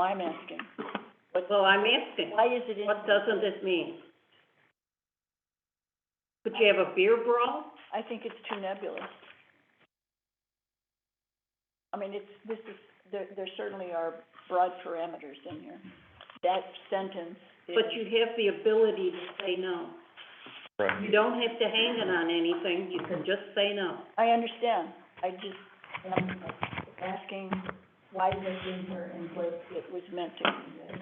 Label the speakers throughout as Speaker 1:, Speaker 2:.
Speaker 1: I'm asking,
Speaker 2: Well, I'm asking,
Speaker 1: why is it in?
Speaker 2: what doesn't this mean? Could you have a beer brawl?
Speaker 1: I think it's too nebulous. I mean, it's, this is, there, there certainly are broad parameters in here. That sentence is.
Speaker 2: But you have the ability to say no.
Speaker 3: Right.
Speaker 2: You don't have to hang it on anything, you can just say no.
Speaker 1: I understand, I just am asking why this is in here and what it was meant to convey.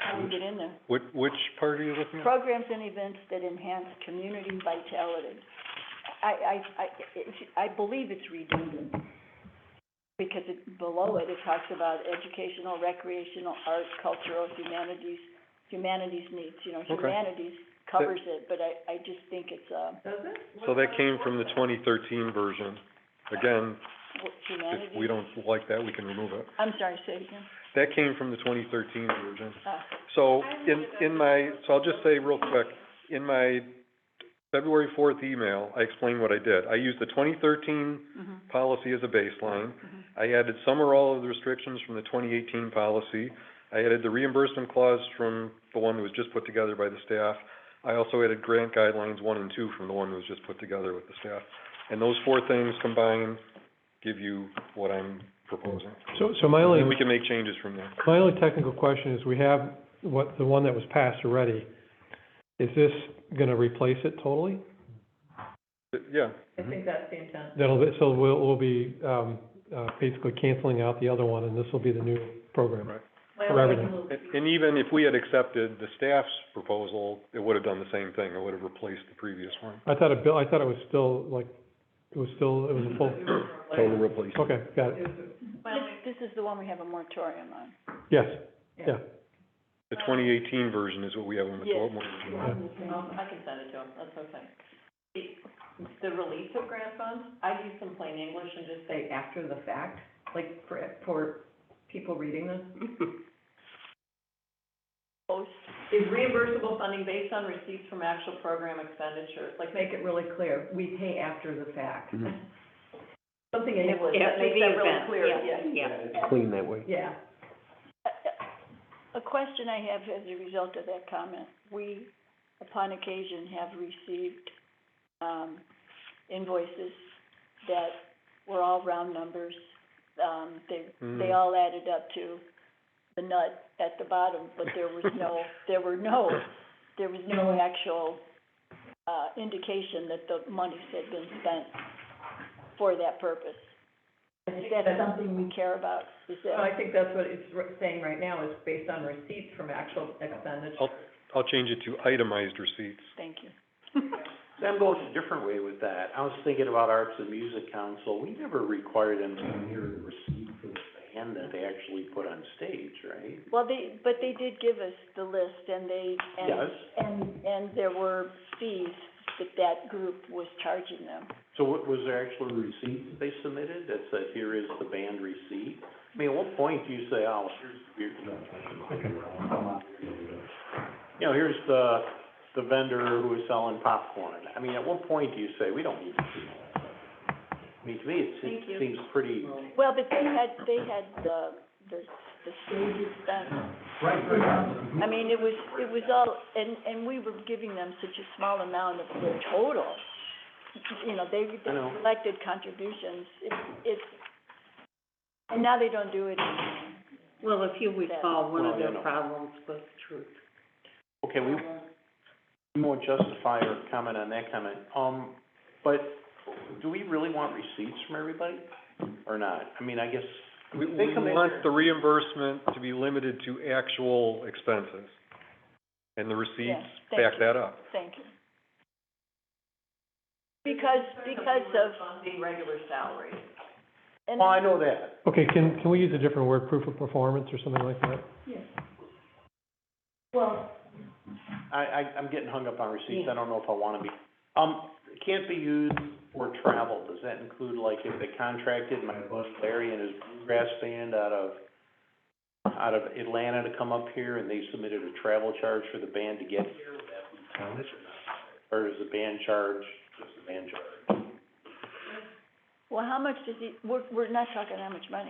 Speaker 1: How did it get in there?
Speaker 3: Which, which part are you looking at?
Speaker 1: Programs and events that enhance community vitality. I, I, I, it's- I believe it's redundant, because it, below it, it talks about educational, recreational, arts, cultural, humanities, humanities needs, you know,
Speaker 3: Okay.
Speaker 1: humanities covers it, but I, I just think it's, uh,
Speaker 3: So that came from the twenty thirteen version. Again,
Speaker 1: what, humanities.
Speaker 3: if we don't like that, we can remove it.
Speaker 1: I'm sorry, say it again.
Speaker 3: That came from the twenty thirteen version.
Speaker 1: Ah,
Speaker 3: So, in, in my, so I'll just say real quick, in my February fourth email, I explained what I did. I used the twenty thirteen
Speaker 1: mhm,
Speaker 3: policy as a baseline.
Speaker 1: mhm.
Speaker 3: I added some or all of the restrictions from the twenty eighteen policy. I added the reimbursement clause from the one that was just put together by the staff. I also added grant guidelines one and two from the one that was just put together with the staff. And those four things combined give you what I'm proposing.
Speaker 4: So, so my only,
Speaker 3: And we can make changes from there.
Speaker 4: my only technical question is, we have what, the one that was passed already. Is this gonna replace it totally?
Speaker 3: But, Yeah,
Speaker 5: I think that's the intent.
Speaker 4: That'll, be- so we'll, we'll be, um, uh, basically canceling out the other one, and this will be the new program.
Speaker 3: Right.
Speaker 5: My
Speaker 4: For
Speaker 5: only
Speaker 1: Mm-hmm.
Speaker 4: everything.
Speaker 5: move-
Speaker 3: and, and even if we had accepted the staff's proposal, it would have done the same thing. It would have replaced the previous one.
Speaker 4: I thought it, bill- I thought it was still, like, it was still, it was a full,
Speaker 3: Total replacement.
Speaker 4: okay, got it,
Speaker 1: This, this is the one we have a moratorium on.
Speaker 4: yes,
Speaker 5: Yeah.
Speaker 4: yeah.
Speaker 3: The twenty eighteen version is what we have on the
Speaker 1: Yes.
Speaker 3: twelve month.
Speaker 5: Um, I can send it to him, that's okay. The, the release of grant funds, I'd use some plain English and just say after the fact, like for, for people reading this.
Speaker 1: Post,
Speaker 5: Is reimbursable funding based on receipts from actual program expenditures? Like, make it really clear, we pay after the fact.
Speaker 3: Mhm.
Speaker 5: Something in English that
Speaker 2: After
Speaker 5: makes
Speaker 2: the
Speaker 5: that really
Speaker 2: event,
Speaker 5: clear,
Speaker 2: yeah,
Speaker 5: yeah.
Speaker 2: yeah.
Speaker 3: Clean that way.
Speaker 5: Yeah.
Speaker 1: A- A a question I have as a result of that comment, we upon occasion have received, um, invoices that were all round numbers. Um, they, they
Speaker 3: Mm.
Speaker 1: all added up to the nut at the bottom, but there was no, there were no, there was no actual, uh, indication that the monies had been spent for that purpose.
Speaker 5: I
Speaker 1: Is
Speaker 5: think
Speaker 1: that
Speaker 5: that's-
Speaker 1: something we care about? Is that?
Speaker 5: Well, I think that's what it's re- saying right now, is based on receipts from actual expenditures.
Speaker 3: I'll- I'll change it to itemized receipts.
Speaker 1: Thank you.
Speaker 6: Sam goes a different way with that. I was thinking about Arts and Music Council, we never require them to hear a receipt for the band that they actually put on stage, right?
Speaker 1: Well, they, but they did give us the list and they, and,
Speaker 6: Yes.
Speaker 1: and, and there were fees that that group was charging them.
Speaker 6: So what, was there actually receipts they submitted that said, here is the band receipt? I mean, at what point do you say, oh, here's, here's, you know, here's the, the vendor who is selling popcorn? I mean, at what point do you say, we don't need to see all that? I mean, to me, it seems,
Speaker 2: Thank you.
Speaker 6: seems pretty.
Speaker 1: Well, but they had, they had the, the, the stage expense. I mean, it was, it was all, and, and we were giving them such a small amount of the total. You know, they, they
Speaker 6: I know.
Speaker 1: collected contributions, it, it, and now they don't do it
Speaker 2: Well, if you recall, one of
Speaker 6: Well, you
Speaker 2: their
Speaker 6: know.
Speaker 2: problems was truth.
Speaker 6: Okay, we, we won't justify or comment on that comment. Um, but do we really want receipts from everybody or not? I mean, I guess,
Speaker 3: We, we
Speaker 6: They come in
Speaker 3: want
Speaker 6: here.
Speaker 3: the reimbursement to be limited to actual expenses, and the receipts
Speaker 1: thank
Speaker 3: back
Speaker 1: you.
Speaker 3: that up.
Speaker 1: Thank you. Because, because of,
Speaker 5: Funding regular salaries.
Speaker 1: and,
Speaker 6: well, Oh, I know that.
Speaker 4: Okay, can, can we use a different word, proof of performance or something like that?
Speaker 1: well,
Speaker 6: I, I, I'm getting hung up on receipts.
Speaker 2: Yeah.
Speaker 6: I don't know if I wanna be. Um, it can't be used for travel. Does that include, like, if they contracted my buddy Larry and his bluegrass band out of, out of Atlanta to come up here and they submitted a travel charge for the band to get here, would that be counted or not? Or is the band charge, just the band charge?
Speaker 1: well, how much does he, we're, we're not talking how much money.